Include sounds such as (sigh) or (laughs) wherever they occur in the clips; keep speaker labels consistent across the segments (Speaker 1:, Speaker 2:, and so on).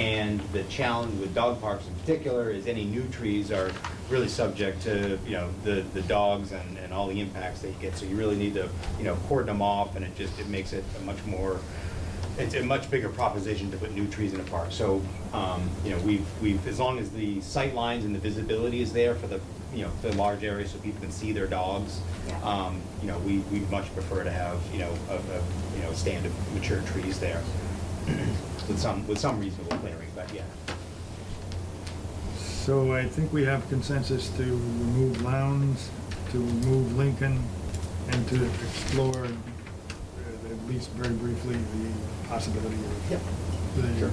Speaker 1: And the challenge with dog parks in particular is any new trees are really subject to, you know, the, the dogs and, and all the impacts that you get. So you really need to, you know, cordon them off and it just, it makes it a much more, it's a much bigger proposition to put new trees in a park. So, um, you know, we've, we've, as long as the sight lines and the visibility is there for the, you know, the large area so people can see their dogs,
Speaker 2: Yeah.
Speaker 1: um, you know, we, we much prefer to have, you know, a, a, you know, stand of mature trees there (clears throat) with some, with some reasonable clearing, but yeah.
Speaker 3: So I think we have consensus to remove Lowndes, to remove Lincoln, and to explore, uh, at least very briefly, the possibility of the
Speaker 1: Sure.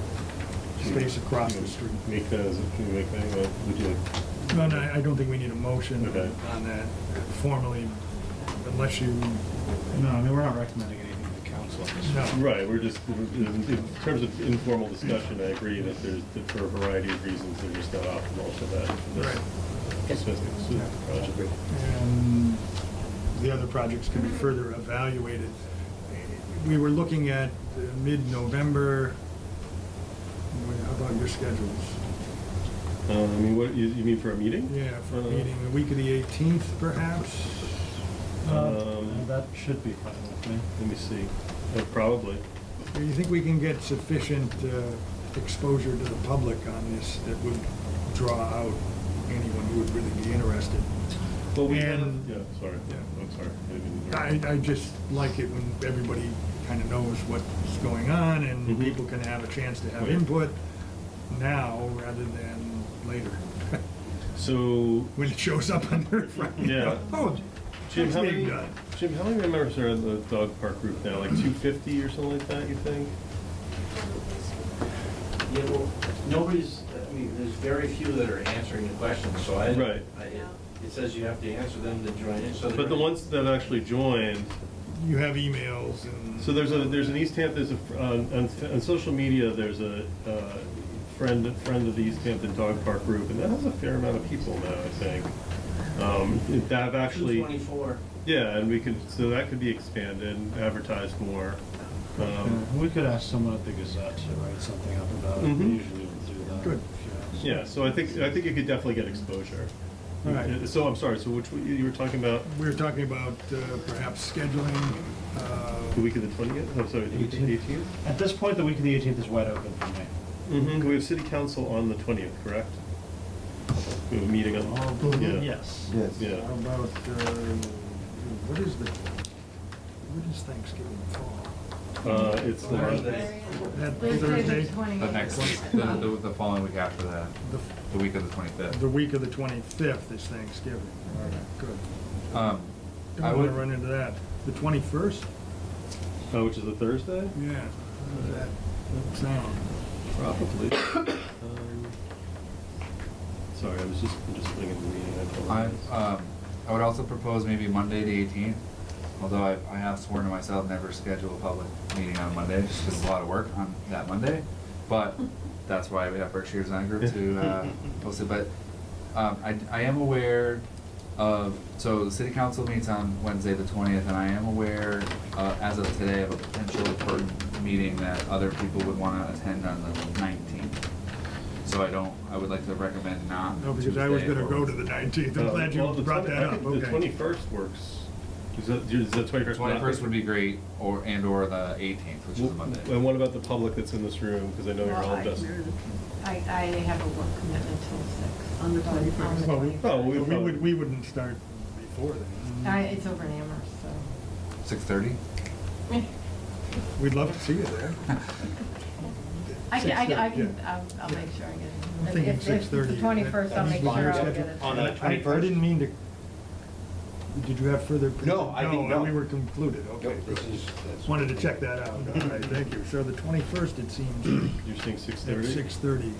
Speaker 3: space across the street.
Speaker 4: Make that, as- can we make that, uh, would you like?
Speaker 3: No, no, I don't think we need a motion
Speaker 4: Okay.
Speaker 3: on that formally, unless you,
Speaker 5: No, I mean, we're not recommending anything to the council on this.
Speaker 3: no.
Speaker 4: Right, we're just, in in terms of informal discussion, I agree that there's, that for a variety of reasons, they're just not optimal for that.
Speaker 3: Right.
Speaker 4: this specific- specific project.
Speaker 3: and the other projects can be further evaluated. We were looking at uh, mid-November. Wh- How about your schedules?
Speaker 4: Uh, I mean, what, you, you mean for a meeting?
Speaker 3: Yeah, for a
Speaker 4: Uh,
Speaker 3: meeting, the week of the 18th perhaps?
Speaker 4: Um,
Speaker 5: Um, That should be fine with me.
Speaker 4: Let me see, Uh, probably.
Speaker 3: Do you think we can get sufficient uh, exposure to the public on this that would draw out anyone who would really be interested?
Speaker 4: Well, we have-
Speaker 3: And-
Speaker 4: Yeah, sorry,
Speaker 3: Yeah.
Speaker 4: I'm sorry. I didn't mean to-
Speaker 3: I, I just like it when everybody kind of knows what's going on and
Speaker 4: Mhm.
Speaker 3: people can have a chance to have
Speaker 4: Right.
Speaker 3: input now rather than later, (laughs)
Speaker 4: So,
Speaker 3: when it shows up on their front. you know,
Speaker 4: Yeah.
Speaker 3: Oh,
Speaker 4: Jim,
Speaker 3: it's
Speaker 4: how
Speaker 3: being
Speaker 4: many,
Speaker 3: done.
Speaker 4: Jim, how many members are in the dog park group now? Like two fifty or something like that, you think?
Speaker 6: Yeah, well, nobody's, I mean, there's very few that are answering the questions, so I.
Speaker 4: Right.
Speaker 6: I- It it says you have to answer them to join in, so.
Speaker 4: But the ones that actually joined,
Speaker 3: You have emails and.
Speaker 4: so there's a, there's an East Hampton, there's a, on, on, on social media, there's a, uh, friend, friend of the East Hampton Dog Park Group, and that has a fair amount of people now, I think. Um, that have actually.
Speaker 6: Two twenty-four.
Speaker 4: Yeah, and we could, so that could be expanded, and advertised more. Um,
Speaker 5: Yeah, We could ask someone at the Gazette to write something up about it. We
Speaker 4: Mhm.
Speaker 5: usually would do that.
Speaker 3: Good.
Speaker 5: if you
Speaker 4: Yeah,
Speaker 5: ask.
Speaker 4: so I think, I think it could definitely get exposure.
Speaker 3: All right.
Speaker 4: So I'm sorry, so which, one- you were talking about
Speaker 3: We were talking about uh, perhaps scheduling,
Speaker 4: the
Speaker 3: uh,
Speaker 4: week of the twentieth, I'm sorry, the
Speaker 5: Eighteenth.
Speaker 4: eighteenth?
Speaker 5: At this point, the week of the 18th is wide open for me.
Speaker 4: Mm-hmm, we have city council on the twentieth, correct? We have a meeting
Speaker 3: Oh,
Speaker 4: on, yeah.
Speaker 5: Yes.
Speaker 4: Yeah,
Speaker 3: how about, uh, what is the, when does Thanksgiving fall?
Speaker 4: uh, it's the
Speaker 6: Thursday.
Speaker 3: That
Speaker 2: Thursday,
Speaker 3: Thursday,
Speaker 2: the twenty.
Speaker 7: The next, the, the, the following week after that,
Speaker 3: the,
Speaker 7: the week of the twenty-fifth.
Speaker 3: the week of the 25th is Thanksgiving. All right, good.
Speaker 7: Um, I
Speaker 3: Don't want to
Speaker 7: would,
Speaker 3: run into that. The 21st?
Speaker 4: oh, which is a Thursday?
Speaker 3: Yeah. How does that sound?
Speaker 4: Probably. Um, (coughs) Sorry, I was just, I'm just putting in the meeting, I
Speaker 7: I,
Speaker 4: apologize.
Speaker 7: um, I would also propose maybe Monday the eighteenth, although I, I have sworn to myself never schedule a public meeting on Monday, just 'cause it's a lot of work on that Monday. But that's why we have Berkshire Design Group to, uh, host it, but, um, I, I am aware of, so the city council meets on Wednesday the twentieth, and I am aware, uh, as of today, of a potential important meeting that other people would wanna attend on the nineteenth. So I don't, I would like to recommend not
Speaker 3: No, because I was
Speaker 7: Tuesday
Speaker 3: going to
Speaker 7: or
Speaker 3: go to the 19th. I'm
Speaker 4: Uh,
Speaker 3: glad you
Speaker 4: well, the
Speaker 3: brought
Speaker 4: 20
Speaker 3: that
Speaker 4: I
Speaker 3: up,
Speaker 4: think The
Speaker 3: okay.
Speaker 4: twenty-first works. Is that, is that twenty-first?
Speaker 7: Twenty-first would be great, or, and or the eighteenth, which is a Monday.
Speaker 4: And what about the public that's in this room? Because I know you're
Speaker 2: Well,
Speaker 4: all
Speaker 2: I-
Speaker 4: invested.
Speaker 2: I, I have a work commitment till six.
Speaker 8: On the
Speaker 2: On the
Speaker 8: 21st.
Speaker 3: Well, we-
Speaker 4: Oh, we
Speaker 3: But we
Speaker 4: probably-
Speaker 3: would, we wouldn't start before then.
Speaker 2: I, it's over in Amherst, so.
Speaker 7: (laughs) Six-thirty?
Speaker 3: We'd love to see you there.
Speaker 2: I can, I, I
Speaker 3: 6:30,
Speaker 2: can,
Speaker 3: yeah.
Speaker 2: I'll, I'll make sure I get it.
Speaker 3: I'm thinking
Speaker 2: If- if it's
Speaker 3: 6:30,
Speaker 2: The twenty-first,
Speaker 3: that-
Speaker 2: I'll make
Speaker 3: that's
Speaker 2: sure
Speaker 3: fine.
Speaker 2: I'll get it.
Speaker 1: On the
Speaker 3: I, I
Speaker 1: 21st?
Speaker 3: didn't mean to, did you have further? pre-
Speaker 1: No, I think no.
Speaker 3: we were concluded, okay.
Speaker 1: Nope, this is- that's-
Speaker 3: Wanted to check that out, all right, thank you. So the 21st, it seems,
Speaker 4: You're saying six
Speaker 3: at
Speaker 4: thirty?
Speaker 3: 6:30.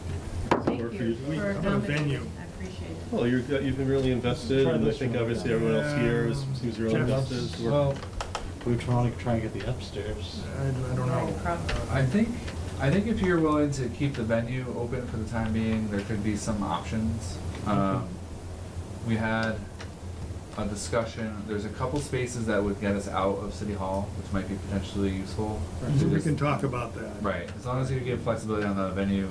Speaker 4: work
Speaker 2: Thank
Speaker 4: for
Speaker 2: you
Speaker 4: you?
Speaker 3: We-
Speaker 2: for
Speaker 3: I'm gonna
Speaker 2: accommodating.
Speaker 3: venue.
Speaker 2: I appreciate it.
Speaker 4: Well, you're, you've been really invested,
Speaker 5: Try
Speaker 4: and I
Speaker 5: this
Speaker 4: think
Speaker 5: one.
Speaker 4: obviously everyone else here is, seems really
Speaker 3: Jeff,
Speaker 4: invested.
Speaker 3: that's-
Speaker 4: We're-
Speaker 5: Well, we were trying to try and get the upstairs.
Speaker 3: I I don't know. Uh,
Speaker 7: I think, I think if you're willing to keep the venue open for the time being, there could be some options. Um, we had a discussion, there's a couple spaces that would get us out of City Hall, which might be potentially useful.
Speaker 3: We can talk about that.
Speaker 7: Right, as long as you give flexibility on the venue